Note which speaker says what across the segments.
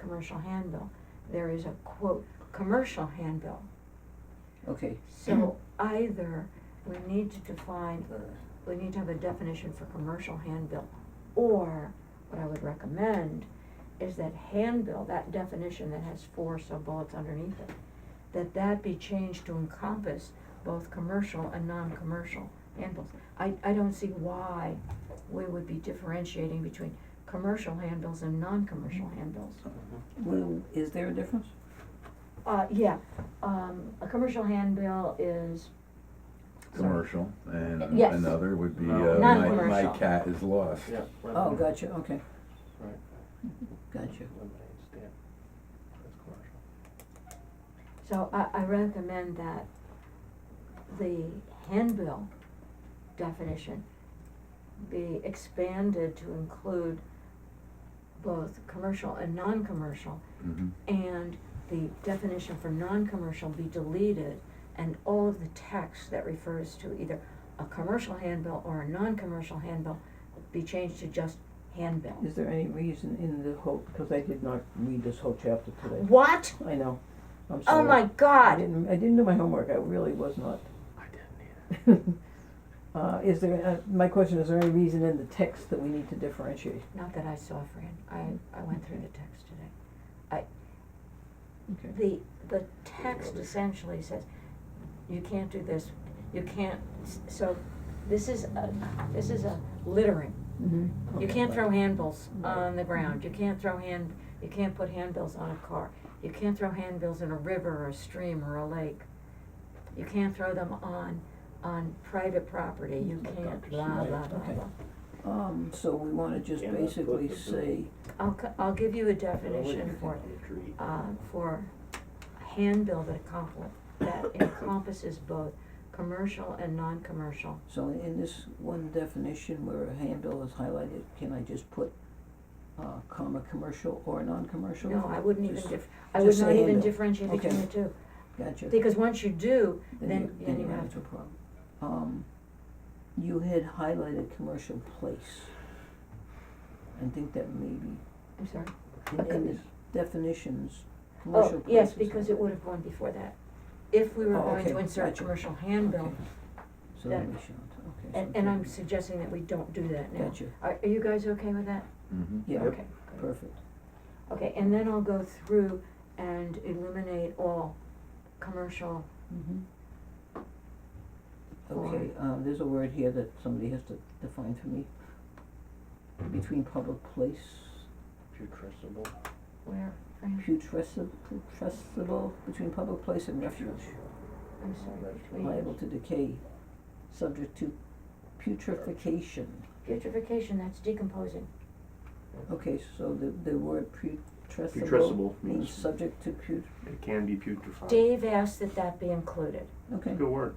Speaker 1: commercial handbill. There is a quote, commercial handbill.
Speaker 2: Okay.
Speaker 1: So either we need to define,
Speaker 2: Uh,
Speaker 1: we need to have a definition for commercial handbill, or what I would recommend is that handbill, that definition that has four sub-bullets underneath it, that that be changed to encompass both commercial and non-commercial handbills. I, I don't see why we would be differentiating between commercial handbills and non-commercial handbills.
Speaker 3: Mm-hmm.
Speaker 2: Well, is there a difference?
Speaker 1: Uh, yeah, um, a commercial handbill is.
Speaker 4: commercial, and
Speaker 1: Yes.
Speaker 4: another would be,
Speaker 3: No.
Speaker 4: uh, my, my
Speaker 1: Non-commercial.
Speaker 4: cat is lost.
Speaker 3: Yeah. right.
Speaker 2: Oh, gotcha, okay.
Speaker 3: Right.
Speaker 2: Gotcha.
Speaker 3: Lemonade stand, that's commercial.
Speaker 1: So I, I recommend that the handbill definition be expanded to include both commercial and non-commercial,
Speaker 4: Mhm.
Speaker 1: and the definition for non-commercial be deleted, and all of the text that refers to either a commercial handbill or a non-commercial handbill be changed to just handbill.
Speaker 2: Is there any reason in the whole, because I did not read this whole chapter today.
Speaker 1: What?
Speaker 2: I know, I'm sorry.
Speaker 1: Oh my
Speaker 2: I
Speaker 1: God!
Speaker 2: didn't, I didn't do my homework, I really was not.
Speaker 3: I didn't either.
Speaker 2: Uh, is there, uh, my question, is there any reason in the text that we need to differentiate?
Speaker 1: Not that I saw, Fran. I, I went through the text today. I,
Speaker 2: Okay.
Speaker 1: the, the text essentially says, you can't do this, you can't, s- so, this is a, this is a littering.
Speaker 2: Mm-hmm.
Speaker 1: You can't throw handbills
Speaker 2: Right. Mm-hmm.
Speaker 1: on the ground, you can't throw hand, you can't put handbills on a car, you can't throw handbills in a river or a stream or a lake. You can't throw them on, on private property, you
Speaker 2: Like
Speaker 1: can't,
Speaker 2: Dr.
Speaker 1: blah,
Speaker 2: Seuss.
Speaker 1: blah, blah,
Speaker 2: Okay.
Speaker 1: blah.
Speaker 2: Um, so we wanna just
Speaker 3: And that's what
Speaker 2: basically
Speaker 3: the-
Speaker 2: say,
Speaker 1: I'll, co- I'll give you a
Speaker 3: Oh,
Speaker 1: definition
Speaker 3: wait.
Speaker 1: for,
Speaker 3: Tree.
Speaker 1: uh, for handbill that accompli- that encompasses both commercial and non-commercial.
Speaker 2: so in this one definition where a handbill is highlighted, can I just put, uh, comma, commercial or non-commercial?
Speaker 1: No, I wouldn't even
Speaker 2: Just-
Speaker 1: dif- I would
Speaker 2: just
Speaker 1: not
Speaker 2: say
Speaker 1: even
Speaker 2: handbill.
Speaker 1: differentiate between
Speaker 2: Okay.
Speaker 1: the two,
Speaker 2: Gotcha.
Speaker 1: because once you do, then, then you
Speaker 2: run
Speaker 1: have
Speaker 2: into a problem. Um, you had highlighted commercial place. I think that maybe,
Speaker 1: I'm sorry.
Speaker 2: in,
Speaker 1: Okay.
Speaker 2: in the definitions, commercial
Speaker 1: Oh,
Speaker 2: place
Speaker 1: yes,
Speaker 2: is
Speaker 1: because it
Speaker 2: highlighted.
Speaker 1: would have gone before that. If we were
Speaker 2: Oh,
Speaker 1: going
Speaker 2: okay,
Speaker 1: to insert
Speaker 2: gotcha.
Speaker 1: commercial handbill,
Speaker 2: Okay. So that
Speaker 1: that-
Speaker 2: we should, okay. so
Speaker 1: and, and I'm
Speaker 2: okay.
Speaker 1: suggesting that we don't do that now.
Speaker 2: Gotcha,
Speaker 1: Are, are you guys okay with that?
Speaker 4: Mhm.
Speaker 2: yeah,
Speaker 1: Okay, good.
Speaker 2: perfect.
Speaker 1: Okay, and then I'll go through and eliminate all commercial
Speaker 2: Mm-hmm. Okay, um, there's a word here that somebody has to define for me. Between public place,
Speaker 3: Putrescible.
Speaker 1: Where, Fran?
Speaker 2: putrescible, putrescible, between public place and refuge.
Speaker 1: I'm sorry,
Speaker 3: That's
Speaker 1: between
Speaker 2: liable to decay, subject to putrefaction.
Speaker 1: putrefaction, that's decomposing.
Speaker 2: Okay, so the, the word putrescible
Speaker 3: Putrescible
Speaker 2: means
Speaker 3: means-
Speaker 2: subject to put,
Speaker 3: It can be putrefied.
Speaker 1: Dave asked that that be included.
Speaker 2: okay,
Speaker 3: Good word.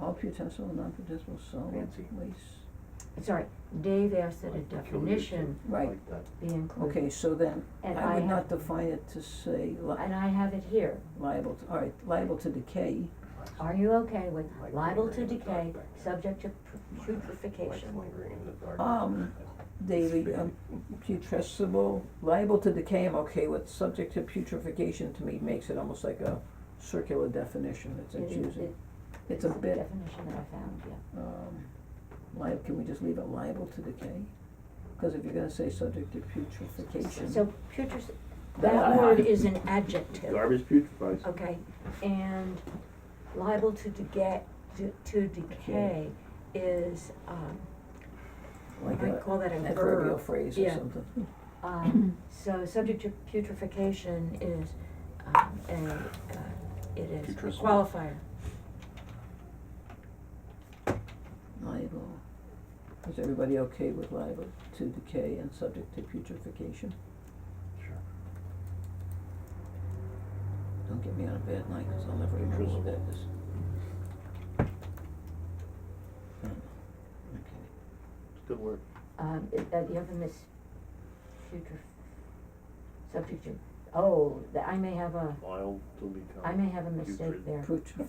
Speaker 2: all putrescible, non-putrescible solid
Speaker 3: Fancy.
Speaker 2: waste.
Speaker 1: Sorry, Dave asked that a
Speaker 3: Like peculiar
Speaker 1: definition
Speaker 3: to-
Speaker 2: Right.
Speaker 3: Like that.
Speaker 1: be included.
Speaker 2: Okay, so then,
Speaker 1: And
Speaker 2: I
Speaker 1: I
Speaker 2: would not
Speaker 1: have,
Speaker 2: define it to say li-
Speaker 1: and I have it here.
Speaker 2: liable, to- all right, liable to decay,
Speaker 1: Are you okay with
Speaker 3: Like
Speaker 1: liable to
Speaker 3: lingering in the dark
Speaker 1: decay,
Speaker 3: back there.
Speaker 1: subject to
Speaker 3: Like
Speaker 1: putrefaction?
Speaker 3: lingering in the dark.
Speaker 1: Oh.
Speaker 2: Um, Daily, um, putrescible, liable to decay, I'm okay with, subject to putrefaction to me makes it almost like a circular definition, it's
Speaker 1: It is-
Speaker 2: confusing.
Speaker 1: it-
Speaker 2: It's a
Speaker 1: the
Speaker 2: bit
Speaker 1: Definition that I found, yeah.
Speaker 2: um, li- can we just leave it liable to decay? Cause if you're gonna say subject to putrefaction,
Speaker 1: So putres,
Speaker 2: That I
Speaker 1: that word
Speaker 2: have.
Speaker 1: is an adjective,
Speaker 3: Garbage putrefies.
Speaker 1: okay? And liable to decay, to, to decay is, um,
Speaker 2: like
Speaker 1: I
Speaker 2: a
Speaker 1: call that a verb.
Speaker 2: adverbial phrase or
Speaker 1: yeah.
Speaker 2: something.
Speaker 1: Um, so subject to putrefaction is, um, a, uh, it is a
Speaker 3: Putrescible.
Speaker 1: qualifier.
Speaker 2: Liable, is everybody okay with liable to decay and subject to putrefaction?
Speaker 3: Sure.
Speaker 2: Don't get me on a bad night, cause I'll never remember what that is. Okay,
Speaker 3: It's a good word.
Speaker 1: Um, it, uh, the other miss, putref, subject to, oh, the- I may have a,
Speaker 3: Liable to become.
Speaker 1: I may have a mistake there.
Speaker 2: putrefaction.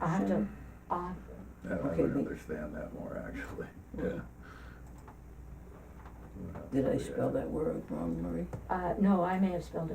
Speaker 1: I have to, uh,
Speaker 4: That I
Speaker 2: Okay,
Speaker 4: would
Speaker 2: the-
Speaker 4: understand that more, actually, yeah.
Speaker 3: You would have to
Speaker 2: Did I
Speaker 3: read it.
Speaker 2: spell that word wrong, Marie?
Speaker 1: Uh, no, I may have spelled it